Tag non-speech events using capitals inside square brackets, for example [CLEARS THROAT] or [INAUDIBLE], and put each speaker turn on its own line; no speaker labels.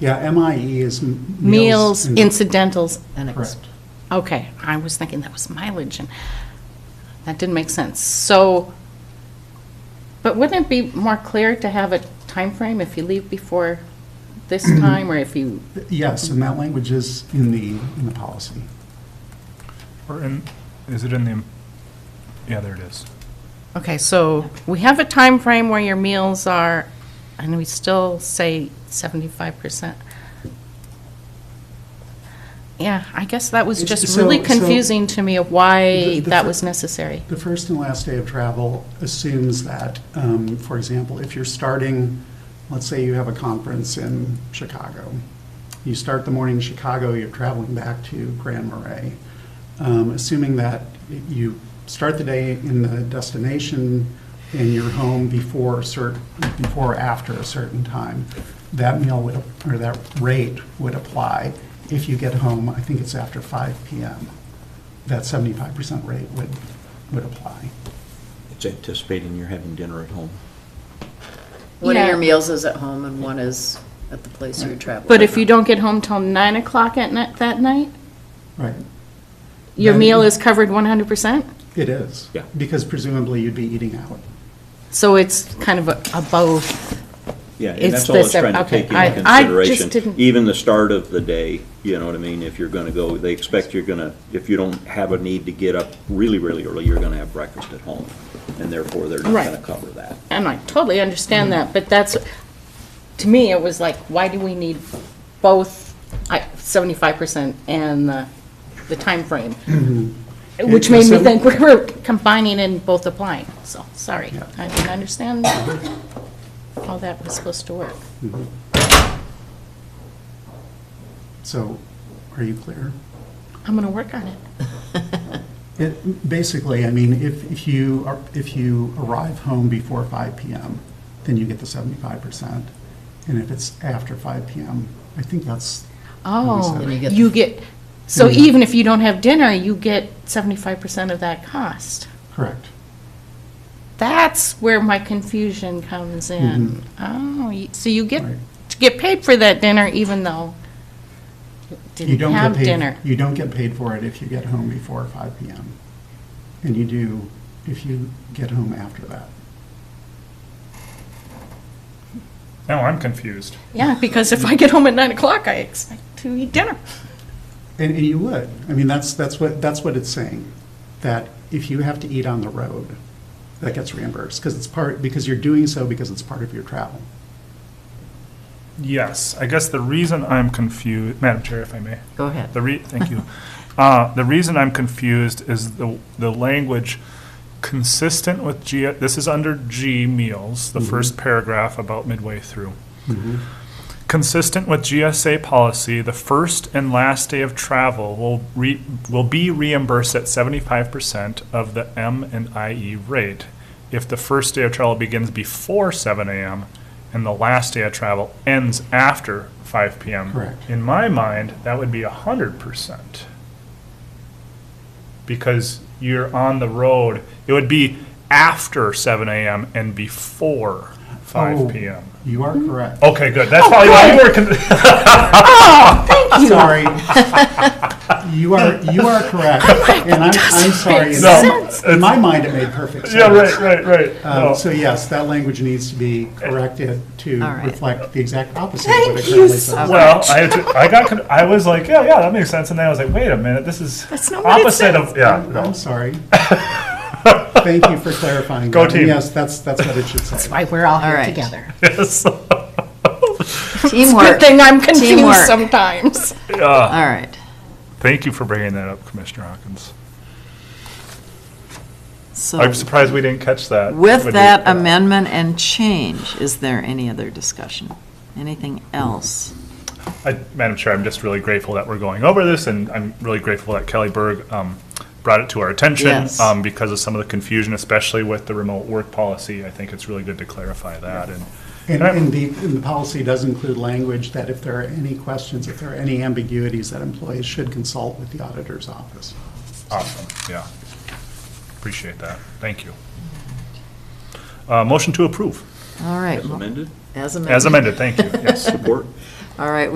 Yeah, MIE is m-
Meals,
and-
incidentals, and ex.
Correct.
Okay, I was thinking that was mileage, and that didn't make sense. So, but wouldn't it be more clear to have a time frame if you leave before
[CLEARS THROAT]
this time, or if you,
Yes, and that language is in the, in the policy.
Or in, is it in the, yeah, there it is.
okay, so we have a time frame where your meals are, and we still say 75%. Yeah, I guess that was just
So-
really
so-
confusing to me of why
The- the
that
fir-
was necessary.
The first and last day of travel assumes that, um, for example, if you're starting, let's say you have a conference in Chicago. You start the morning in Chicago, you're traveling back to Grand Marais. Um, Assuming that you start the day in the destination and you're home before a cer, before or after a certain time, that meal would, or that rate would apply. If you get home, I think it's after 5 PM that seventy-five percent rate would, would apply.
It's anticipating you're having dinner at home.
One
Yeah.
of your meals is at home and one is at the place you're traveling.
But if you don't get home till nine o'clock at night, that night,
Right,
your
Then-
meal is covered one hundred percent?
it is.
Yeah.
Because presumably you'd be eating out.
So it's kind of a a both.
Yeah,
It's
and that's all
the
it's
sep-
trying to
okay,
take
I- I
into
just
consideration.
didn't-
Even the start of the day, you know what I mean? If you're going to go, they expect you're going to, if you don't have a need to get up really, really early, you're going to have breakfast at home. And therefore, they're not
Right.
going to cover that.
And I totally understand that, but that's, to me, it was like, why do we need both seventy-five percent and the, the timeframe? Which made me think we were combining and both applying, so, sorry.
Yeah.
I didn't understand how that was supposed to work.
So, are you clear?
I'm gonna work on it.
It, basically, I mean, if, if you, are- if you arrive home before five PM, then you get the seventy-five percent. And if it's after five PM, I think that's. how we
Oh,
said it.
Then you get-
you get, so
Mhm.
even if you don't have dinner, you get seventy-five percent of that cost.
Correct.
That's where my confusion comes in. Oh, y- so you get,
Right.
to get paid for that dinner even though you
You
didn't
don't get
have
paid.
dinner.
You don't get paid for it if you get home before five PM. And you do if you get home after that.
Now I'm confused.
Yeah, because if I get home at nine o'clock, I expect to eat dinner.
And, and you would. I mean, that's, that's what, that's what it's saying, that if you have to eat on the road, that gets reimbursed, because it's part, because you're doing so because it's part of your travel.
Yes, I guess the reason I'm confused, Madam Chair, if I may.
Go ahead.
The re, thank you. Uh, The reason I'm confused is the, the language consistent with G, this is under G meals, the first paragraph about midway through. Consistent with GSA policy, the first and last day of travel will re, will be reimbursed at seventy-five percent of the M and IE rate. If the first day of travel begins before seven AM and the last day of travel ends after five PM.
Correct.
In my mind, that would be hundred percent. Because you're on the road, it would be after seven AM and before
Oh,
five PM.
You are correct.
Okay, good. That's probably why you were con-
Oh,
Sorry. You are, you are correct.
Oh
And I'm, I'm sorry. In
No,
my- In my mind, it made perfect sense.
Yeah, right, Oh. right,
[LAUGHS]
right.
Um,
No.
So yes, that language needs to be corrected to
All right.
reflect the exact opposite of what it currently says.
well, I, had to, I got, con- I was like, yeah, yeah, that makes sense, and then I was like, wait a minute, this is
That's not what it
opposite of, [LAUGHS] yeah,
I'm I'm
no.
sorry. Thank you for clarifying.
Go
that. And
team.
Yes, that's, that's what it should say.
Why, we're all
All
here
right.
together.
Yes.
Teamwork. Uh,
Good thing I'm confused
Teamwork.
sometimes.
All right.
Thank you for bringing that up, Commissioner Hawkins.
So
I'm surprised we didn't catch that. uh,
with
Would
that
you-
amendment and change, is there any other discussion? Anything else?
I- Madam Chair, I'm just really grateful that we're going over this, and I'm really grateful that Kelly Berg um, brought it to our attention
Yes.
um, because of some of the confusion, especially with the remote work policy. I think it's really good to clarify that, and
And,
And I'm-
and the, and the policy does include language that if there are any questions, if there are any ambiguities, that employees should consult with the auditor's office.
awesome, yeah. Appreciate that. Thank you. Uh, Motion to approve,
All right.
As amended,
As amended.
as amended, thank you, yes.
support.
All right,